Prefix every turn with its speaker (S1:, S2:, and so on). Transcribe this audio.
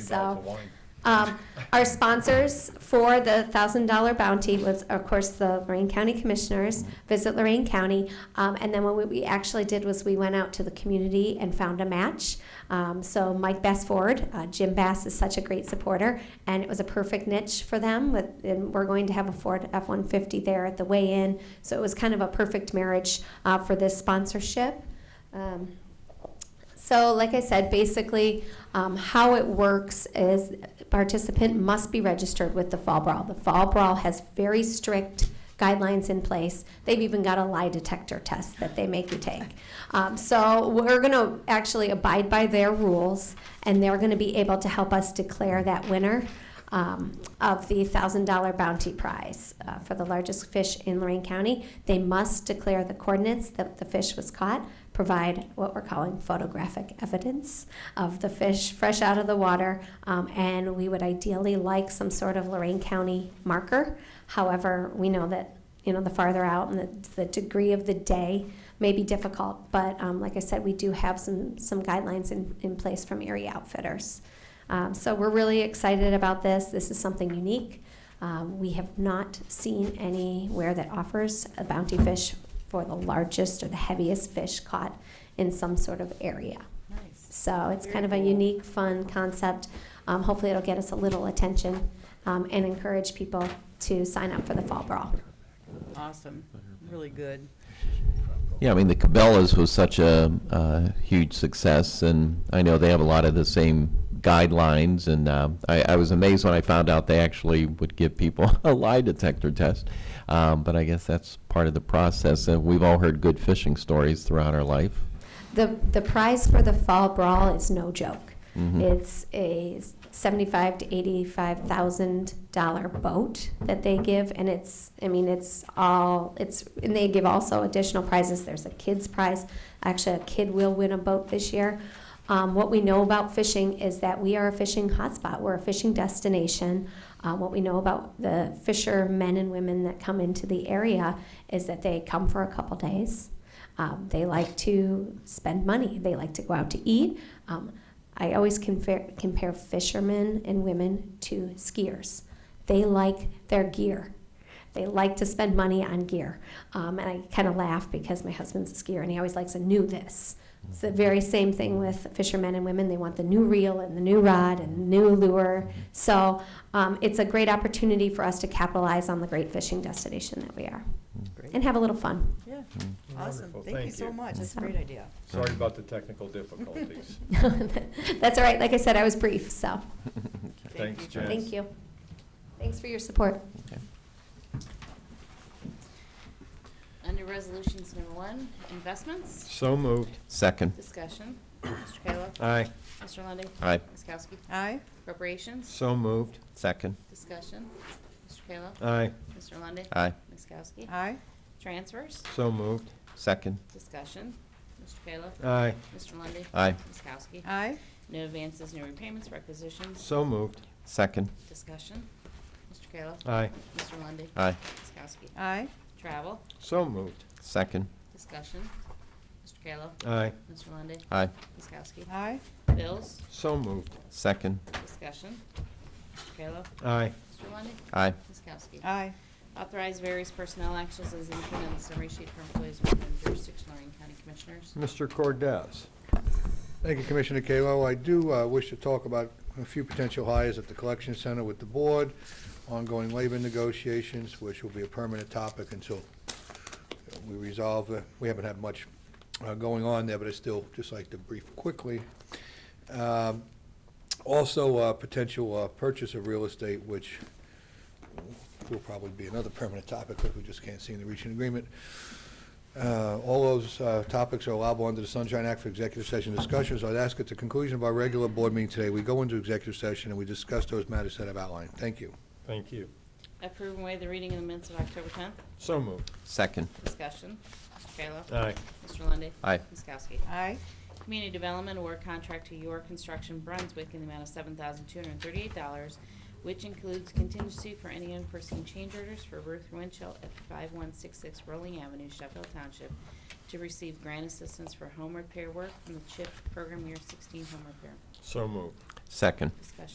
S1: so. Um, Our sponsors for the $1,000 bounty was, of course, the Lorraine County Commissioners, Visit Lorraine County. Um, And then what we- we actually did was we went out to the community and found a match. Um, So Mike Bassford, uh, Jim Bass is such a great supporter, and it was a perfect niche for them. with- And we're going to have a Ford F-150 there at the weigh-in. So it was kind of a perfect marriage uh, for this sponsorship. Um, so, like I said, basically, um, how it works is participant must be registered with the Fall Brawl. The Fall Brawl has very strict guidelines in place. They've even got a lie detector test that they make you take. Um, so, we're going to actually abide by their rules, and they're going to be able to help us declare that winner. Um, of the $1,000 bounty prize uh, for the largest fish in Lorraine County. They must declare the coordinates that the fish was caught, provide what we're calling photographic evidence of the fish fresh out of the water, um, and we would ideally like some sort of Lorraine County marker. However, we know that you know the farther out and the, the degree of the day may be difficult, but um, like I said, we do have some some guidelines in, in place from Erie Outfitters. Um, so we're really excited about this. This is something unique. Um, we have not seen anywhere that offers a bounty fish for the largest or the heaviest fish caught in some sort of area.
S2: Nice.
S1: So it's kind of a
S2: Very cool.
S1: unique, fun concept. Um, hopefully, it'll get us a little attention um, and encourage people to sign up for the fall brawl.
S2: Awesome. Really good.
S3: Yeah, I mean, the Cabela's was such a, uh huge success, and I know they have a lot of the same guidelines, and uh, I, I was amazed when I found out they actually would give people a lie detector test. Um, but I guess that's part of the process, and we've all heard good fishing stories throughout our life.
S1: The, the prize for the fall brawl is no joke.
S3: Mhm.
S1: It's a seventy-five to eighty-five thousand dollar boat that they give, and it's, I mean, it's all, it's, and they give also additional prizes. There's a kids prize. Actually, a kid will win a boat this year. Um, what we know about fishing is that we are a fishing hotspot. We're a fishing destination. Uh, what we know about the fishermen and women that come into the area is that they come for a couple days. Um, they like to spend money. They like to go out to eat. Um, I always compare, compare fishermen and women to skiers. They like their gear. They like to spend money on gear. Um, and I kind of laugh because my husband's a skier and he always likes a new this. It's the very same thing with fishermen and women. They want the new reel and the new rod and new lure. So um, it's a great opportunity for us to capitalize on the great fishing destination that we are and
S2: Great.
S1: have a little fun.
S2: Yeah, awesome.
S4: Wonderful,
S2: Thank you so much. That's a great idea.
S4: Sorry about the technical difficulties.
S1: That's all right. Like I said, I was brief, so
S2: Thank
S4: Thanks,
S2: you.
S4: Jen.
S1: thank you. Thanks for your support.
S5: Under Resolutions Number One, Investments,
S4: So moved.
S3: Second.
S5: Discussion, Mr. Kayla.
S4: Aye.
S5: Mr. Lundy,
S3: Aye.
S5: Ms. Kowski.
S2: Aye.
S5: Appropriations,
S4: So moved.
S3: Second.
S5: Discussion, Mr. Kayla.
S4: Aye.
S5: Mr. Lundy,
S3: Aye.
S5: Ms. Kowski.
S2: Aye.
S5: Transfers,
S4: So moved.
S3: Second.
S5: Discussion, Mr. Kayla.
S4: Aye.
S5: Mr. Lundy,
S3: Aye.
S5: Ms. Kowski.
S2: Aye.
S5: No advances, no repayments, requisitions,
S4: So moved.
S3: Second.
S5: Discussion, Mr. Kayla.
S4: Aye.
S5: Mr. Lundy,
S3: Aye.
S5: Ms. Kowski.
S2: Aye.
S5: Travel,
S4: So moved.
S3: Second.
S5: Discussion, Mr. Kayla.
S4: Aye.
S5: Mr. Lundy,
S3: Aye.
S5: Ms. Kowski.
S2: Aye.
S5: Bills,
S4: So moved.
S3: Second.
S5: Discussion, Mr. Kayla.
S4: Aye.
S5: Mr. Lundy,
S3: Aye.
S5: Ms. Kowski.
S2: Aye.
S5: Authorize various personnel actions as indicated on the summary sheet for employees within jurisdiction Lorraine County Commissioners.
S4: Mr. Cordez.
S6: Thank you, Commissioner Kalo. I do uh, wish to talk about a few potential hires at the collection center with the board, ongoing labor negotiations, which will be a permanent topic until we resolve, uh, we haven't had much uh, going on there, but I still just like to brief quickly. Um, Also, uh, potential uh, purchase of real estate, which will probably be another permanent topic, but we just can't seem to reach an agreement. Uh, All those uh, topics are allowable under the Sunshine Act for executive session discussions. I'd ask at the conclusion of our regular board meeting today, we go into executive session and we discuss those matters that I've outlined. Thank you.
S4: Thank you.
S5: Approve and waive the reading of the minutes of October 10th.
S4: So moved.
S3: Second.
S5: Discussion. Mr. Kayla.
S4: Aye.
S5: Mr. Lundy.
S3: Aye.
S5: Ms. Kowski.
S2: Aye.
S5: Community Development Award Contract to Your Construction Brunswick in the amount of $7,238, which includes contingency for any unforeseen change orders for Ruth Winchell at 5166 Rolling Avenue, Sheffield Township, to receive grant assistance for home repair work from the CHIP Program Year 16 Home Repair.
S4: So moved.
S3: Second.
S5: Discussion.